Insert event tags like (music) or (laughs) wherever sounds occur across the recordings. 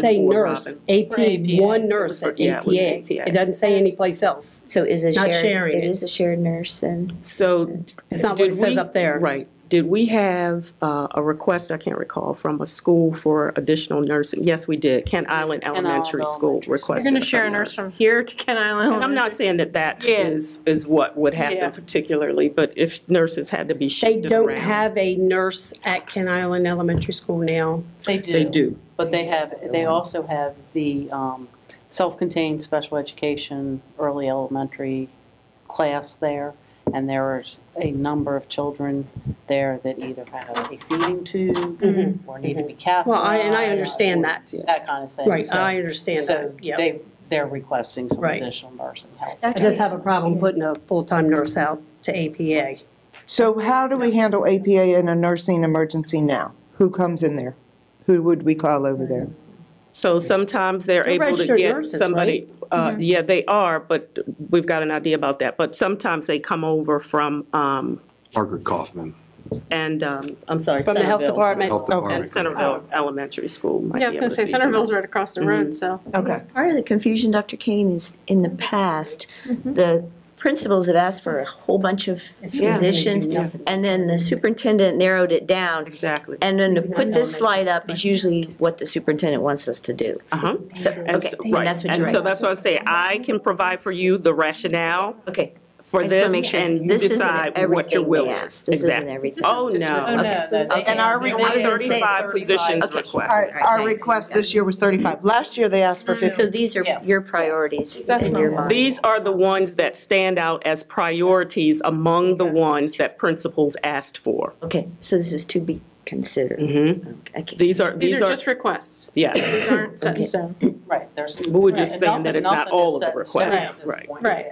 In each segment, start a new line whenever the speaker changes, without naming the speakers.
say
for
nurse,
Robin.
AP,
For APA.
one
It was
nurse
for-
at
yeah, it was
APA.
APA.
It doesn't say anyplace else.
So it is a
Not
shared.
sharing
It
it.
is a shared nurse and
So.
It's not what
did
it says
we-
up there.
Right. Did we have uh, a request, I can't recall, from a school for additional nursing? Yes, we did. Kent Island
Island
Elementary School
Elementary School.
You're
requested.
gonna share a nurse from here to Kent Island.
And I'm not saying that that
Yeah.
is, is what would
Yeah.
happen particularly, but if nurses had to be
They
shifted around.
don't have a nurse at Ken Island Elementary School now.
They do.
They do.
But they have, they also have the um, self-contained special education, early elementary class there. And there are a number of children there that either have a feeding tube
Mhm.
or need to be
Well, I,
catheterized.
and
Ah,
I
or
understand that.
That kind of thing.
Right,
So-
I understand that,
So
yeah.
they, they're requesting some
Right.
additional nursing help.
I just have a problem putting a full-time nurse out to APA.
So how do we handle APA in a nursing emergency now? Who comes in there? Who would we call over there?
So sometimes they're
They're
able to
registered
get
nurses, Mm-hmm.
somebody, uh, yeah, they are, but we've got an idea about that. But sometimes they come over from, um,
Margaret Kaufman.
and, um, I'm sorry.
From the health
Centerville.
department.
Health
And
Department.
Centerville Elementary School might
Yeah, I was
be
gonna
able to
say
see Mm-hmm. somebody.
Centerville's right across the road, so.
Okay.
part of the confusion, Dr. Kane, is in the past, the principals have asked for a whole bunch of
Yeah.
positions,
Yeah.
and then the superintendent narrowed it down.
Exactly.
And then to put this slide up is usually what the superintendent wants us to do.
Uh-huh.
So,
And
okay,
so-
and
right.
that's what
And so
you're right.
that's what I say, I can provide for you the rationale
Okay.
for
I just wanna
this
make sure
and you
this isn't
decide what your
everything
will
they
is.
asked. This isn't
Exactly.
everything.
Oh,
This is just-
no.
Okay.
no, they-
And our
they-
request
they-
is
Thirty-five positions
Okay.
requested.
Our, our
Thanks.
request this year was 35. Last year, they asked for 50.
So these are
Yes.
your priorities
That's
in your
normal.
mind.
These are the ones that stand out as priorities among the ones that principals asked for.
Okay, so this is to be considered. Okay.
Mm-hmm. These are,
These are just
yes.
requests. These aren't set in
Okay.
stone.
Right, there's.
We were just
right,
saying
nothing-
that it's not
nothing
all
is
of the
set in stone
requests,
at this
right.
point.
Right.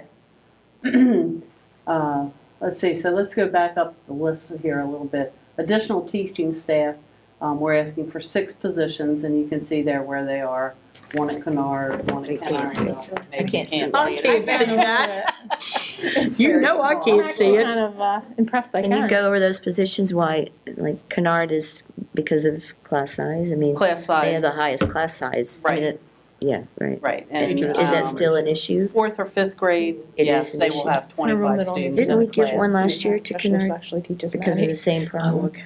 (clears throat) Uh, Let's see, so let's go back up the list here a little bit. Additional teaching staff, um, we're asking for six positions, and you can see there where they are. One at Canard, one at
can't see
Canard. I
can't see it.
I can't see that. You know I can't see
Kind
it.
of uh, impressed I
Can you
can.
go over those positions, why, like, Canard is because of class size? I mean,
Class
they have
size,
the highest class size. I mean,
Right.
it- Yeah, right.
right. and,
Is that
um,
still an issue?
Fourth or fifth grade,
It
yes,
is an
they will
issue.
have
in a room that only-
25 students in
Didn't we
the
give
class.
one last year to
Specialist
Canard
Actually teaches
because of the same
Oh,
problem?
okay.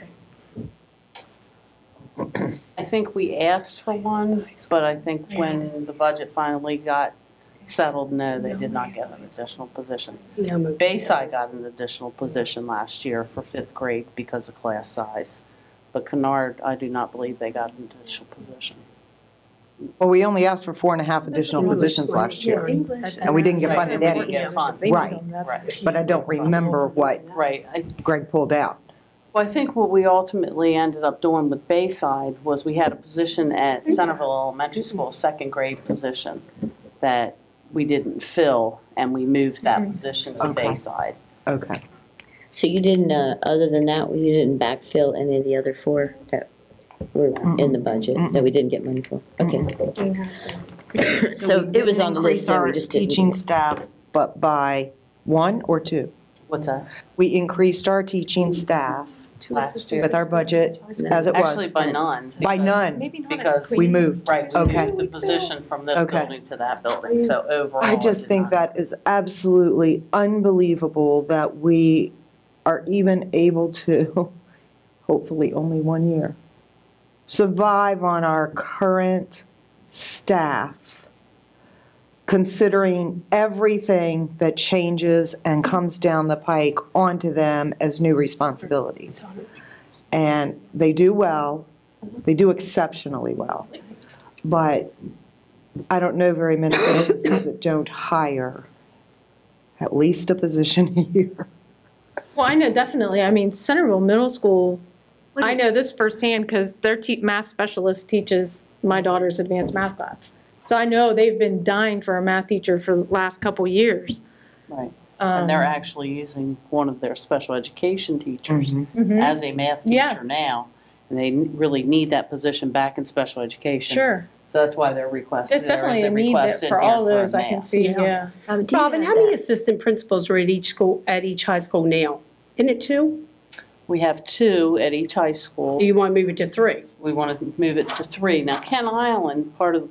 I think we asked for one, but I think when the budget finally got settled, no, they did not get an additional position. Bayside got an additional position last year for fifth grade because of class size. But Kennard, I do not believe they got an additional position.
Well, we only asked for four and a half additional
English
positions
language.
last year,
English.
and we didn't get
Right, and
funded
we
any,
didn't get funded.
Right. but I don't remember what
Right, I
Greg pulled out.
Well, I think what we ultimately ended up doing with Bayside was we had a position at Centerville Elementary School, second grade position, that we didn't fill, and we moved that position to
Okay.
Bayside.
Okay.
So you didn't, uh, other than that, you didn't backfill any of the other four that were in the budget, that we didn't get money for? Okay. (coughs) So it was on the list, so we just didn't.
Teaching staff, but by one or two.
What's that?
We increased our teaching staff
Last year?
with our budget as it
Actually,
was.
by none.
By
because-
none,
Maybe not.
Because-
we moved.
Right, we
Okay.
moved the position from this
Okay.
building to that building, so overall.
I
it
just
did
think
not-
that is absolutely unbelievable that we are even able to, (laughs) hopefully only one year, survive on our current staff, considering everything that changes and comes down the pike onto them as new responsibilities. And they do well, they do exceptionally well. But I don't know very many businesses that don't hire at least a position (laughs) a year.
Well, I know definitely. I mean, Centerville Middle School, I know this firsthand because their te- math specialist teaches my daughter's advanced math class. So I know they've been dying for a math teacher for the last couple years. Um,
Right, and they're actually using one of their special education teachers
Mm-hmm.
Mhm.
as a math
Yeah.
teacher now, and they n- really need that position back in special education.
Sure.
So that's why they're requesting,
It's
there is
definitely
a
a need
request
that
in
for
here
all
for a
those, I can
math.
see,
Yeah.
yeah.
Um, do you
Robin,
have
how
that?
many assistant principals are at each school, at each high school now? Isn't it two?
We have two at each high
Do
school.
you want to move it to three?
We want to move it to three. Now, Kent Island, part of the